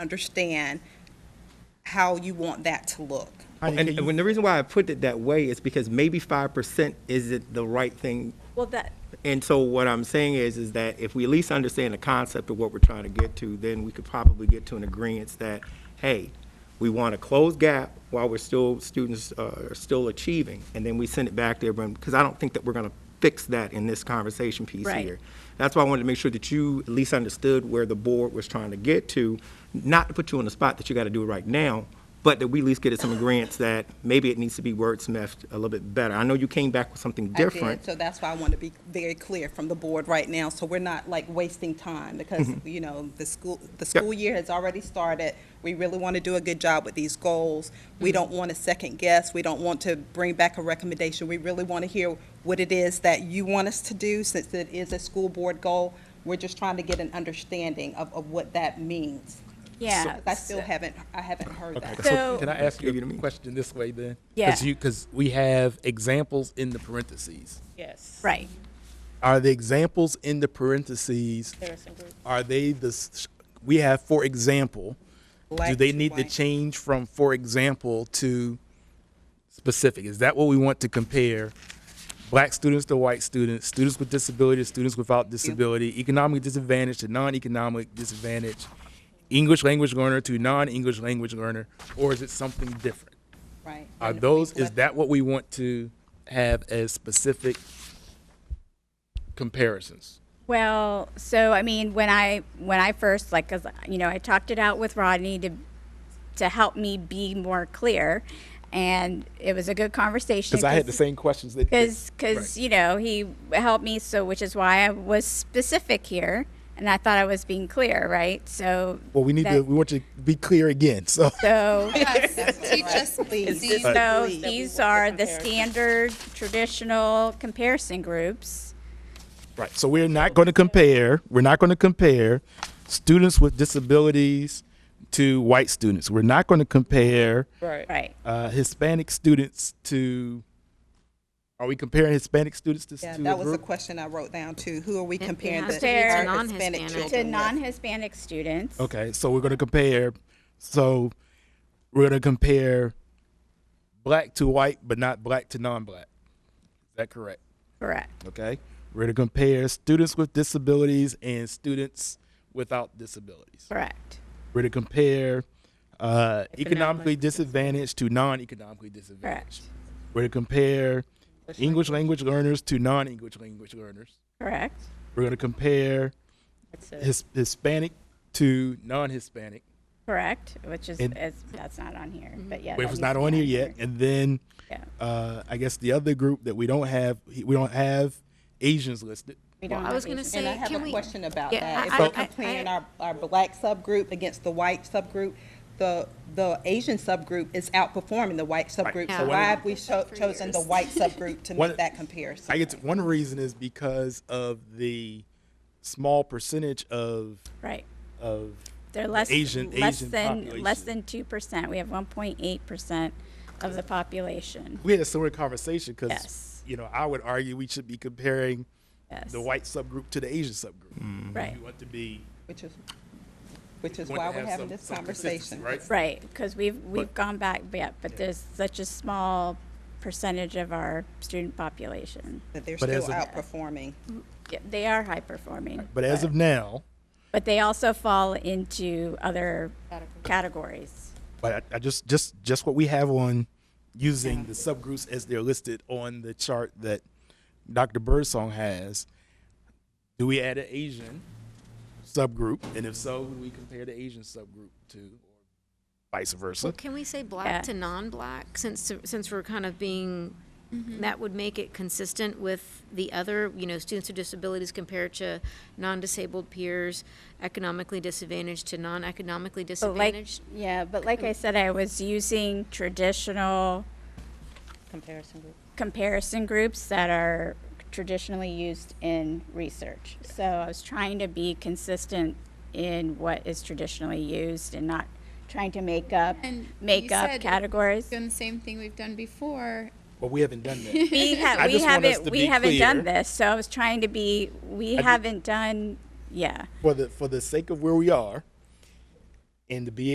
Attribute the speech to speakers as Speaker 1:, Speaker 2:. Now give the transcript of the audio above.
Speaker 1: understand how you want that to look.
Speaker 2: Heidi,
Speaker 3: And,
Speaker 2: can
Speaker 3: and
Speaker 2: you-
Speaker 3: when the reason why I put it that way is because maybe five percent isn't the right thing.
Speaker 4: Well, that,
Speaker 3: And so what I'm saying is, is that if we at least understand the concept of what we're trying to get to, then we could probably get to an agreement that, hey, we want to close gap while we're still, students uh, are still achieving, and then we send it back to everyone, because I don't think that we're going to fix that in this conversation piece
Speaker 4: Right.
Speaker 3: here. That's why I wanted to make sure that you at least understood where the board was trying to get to, not to put you on the spot that you got to do it right now, but that we at least get some agreements that maybe it needs to be wordsmithed a little bit better. I know you came back with something
Speaker 1: I did,
Speaker 3: different.
Speaker 1: So that's why I want to be very clear from the board right now, so we're not like wasting time, because, you know, the school, the school year has already started. We really want to do a good job with these goals. We don't want to second guess, we don't want to bring back a recommendation. We really want to hear what it is that you want us to do, since it is a school board goal. We're just trying to get an understanding of, of what that means.
Speaker 4: yeah.
Speaker 1: I still haven't, I haven't heard that.
Speaker 2: Okay,
Speaker 4: So-
Speaker 2: Can I ask
Speaker 3: Give you
Speaker 2: you
Speaker 3: the
Speaker 2: a
Speaker 3: means.
Speaker 2: question this way then?
Speaker 4: Yeah.
Speaker 2: Because we have examples in the parentheses.
Speaker 5: Yes.
Speaker 4: Right.
Speaker 2: Are the examples in the parentheses,
Speaker 5: There are some groups.
Speaker 2: are they the, s- we have, for example, do
Speaker 1: Black
Speaker 2: they
Speaker 1: to
Speaker 2: need to
Speaker 1: white.
Speaker 2: change from, for example, to specific? Is that what we want to compare? Black students to white students, students with disabilities, students without disability, economic disadvantage to non-economic disadvantage, English language learner to non-English language learner, or is it something different?
Speaker 1: Right.
Speaker 2: Are
Speaker 1: And we
Speaker 2: those, is
Speaker 1: collect-
Speaker 2: that what we want to have as specific comparisons?
Speaker 4: Well, so I mean, when I when I first like, 'cause, you know, I talked it out with Rodney to to help me be more clear, and it was a good conversation.
Speaker 2: Because I had the same questions that.
Speaker 4: because because
Speaker 2: Right.
Speaker 4: you know he helped me so which is why I was specific here and I thought I was being clear right so
Speaker 2: Well, we need to,
Speaker 4: that-
Speaker 2: we want you to be clear again, so.
Speaker 4: so
Speaker 1: Teach us, please.
Speaker 5: this-
Speaker 1: These-
Speaker 4: so
Speaker 5: Agreed.
Speaker 4: these are the standard traditional comparison groups
Speaker 2: Right, so we're not going to compare, we're not going to compare students with disabilities to white students. We're not going to compare
Speaker 5: Right.
Speaker 4: right
Speaker 2: uh, Hispanic students to, are we comparing Hispanic students to?
Speaker 1: Yeah,
Speaker 2: to a
Speaker 1: that was the
Speaker 2: group?
Speaker 1: question I wrote down too. Who are we comparing
Speaker 4: has
Speaker 1: the
Speaker 4: to be to
Speaker 1: our Hispanic
Speaker 6: non-Hispanic.
Speaker 4: to
Speaker 1: children with?
Speaker 4: non-Hispanic students
Speaker 2: Okay, so we're gonna compare. So we're gonna compare black to white, but not black to non-black. Is that correct?
Speaker 4: correct
Speaker 2: Okay. We're gonna compare students with disabilities and students without disabilities.
Speaker 4: correct
Speaker 2: We're to compare uh, economically disadvantaged to non-economically disadvantaged.
Speaker 4: Correct.
Speaker 2: We're to compare English language learners to non-English language learners.
Speaker 4: correct
Speaker 2: We're gonna compare
Speaker 5: That's it.
Speaker 2: his, Hispanic to non-Hispanic.
Speaker 4: correct which is,
Speaker 2: And-
Speaker 4: is that's not on here
Speaker 6: Mm-hmm.
Speaker 4: but yeah
Speaker 2: Wait,
Speaker 4: that
Speaker 2: it was
Speaker 4: needs
Speaker 2: not
Speaker 4: to be
Speaker 2: on here yet. And then,
Speaker 4: Yeah.
Speaker 2: uh, I guess the other group that we don't have, we don't have Asians listed.
Speaker 4: We
Speaker 6: Well,
Speaker 4: don't
Speaker 6: I
Speaker 4: have
Speaker 6: was gonna
Speaker 4: these.
Speaker 6: say,
Speaker 1: And I have
Speaker 6: can
Speaker 1: a
Speaker 6: we-
Speaker 1: question about
Speaker 6: Yeah,
Speaker 1: that. If
Speaker 6: I-
Speaker 1: we're
Speaker 6: I- I-
Speaker 1: comparing our, our black subgroup against the white subgroup, the, the Asian subgroup is outperforming the white subgroup. So
Speaker 6: Yeah.
Speaker 1: why have we cho-
Speaker 6: for
Speaker 1: chosen the
Speaker 6: years.
Speaker 1: white subgroup to
Speaker 2: One-
Speaker 1: make that comparison?
Speaker 2: I get one reason is because of the small percentage of
Speaker 4: right
Speaker 2: of
Speaker 4: They're less,
Speaker 2: Asian-
Speaker 4: less
Speaker 2: Asian
Speaker 4: than less
Speaker 2: population.
Speaker 4: than two percent. We have one point eight percent of the population.
Speaker 2: we had a similar conversation because
Speaker 4: Yes.
Speaker 2: you know I would argue we should be comparing
Speaker 4: Yes,
Speaker 2: the white subgroup to the Asian subgroup.
Speaker 4: right,
Speaker 2: We want to be
Speaker 1: Which is, which is
Speaker 2: want to
Speaker 1: why we're
Speaker 2: have
Speaker 1: having
Speaker 2: some-
Speaker 1: this
Speaker 2: some consistency,
Speaker 1: conversation.
Speaker 2: right?
Speaker 4: right. Because we've we've gone back, yeah. But there's such a small percentage of our student population.
Speaker 1: That they're
Speaker 2: But
Speaker 1: still
Speaker 2: as a-
Speaker 1: outperforming.
Speaker 4: Yeah, they are high performing,
Speaker 2: But as of now,
Speaker 4: but they also fall into other categories.
Speaker 2: but I, I just just just what we have on using the subgroups as they're listed on the chart that Dr. Birdsong has. Do we add an Asian subgroup, and if so, who do we compare the Asian subgroup to, or vice versa?
Speaker 6: Can we say black
Speaker 4: Yeah.
Speaker 6: to non-black since since we're kind of being that would make it consistent with the other you know students with disabilities compared to non-disabled peers, economically disadvantaged to non-economically
Speaker 4: But like,
Speaker 6: disadvantaged.
Speaker 4: yeah, but like I said, I was using traditional
Speaker 5: Comparison group.
Speaker 4: comparison groups that are traditionally used in research. So I was trying to be consistent in what is traditionally used and not trying to make up
Speaker 7: And
Speaker 4: make
Speaker 7: you
Speaker 4: up
Speaker 7: said-
Speaker 4: categories.
Speaker 7: Doing the same thing we've done before.
Speaker 2: Well, we haven't done that. I
Speaker 4: We, ha-
Speaker 2: just
Speaker 4: we
Speaker 2: want us
Speaker 4: haven't
Speaker 2: to
Speaker 4: we
Speaker 2: be
Speaker 4: haven't done
Speaker 2: clear.
Speaker 4: this. So I was trying to be we haven't done yeah.
Speaker 2: for the for the sake of where we are, and to be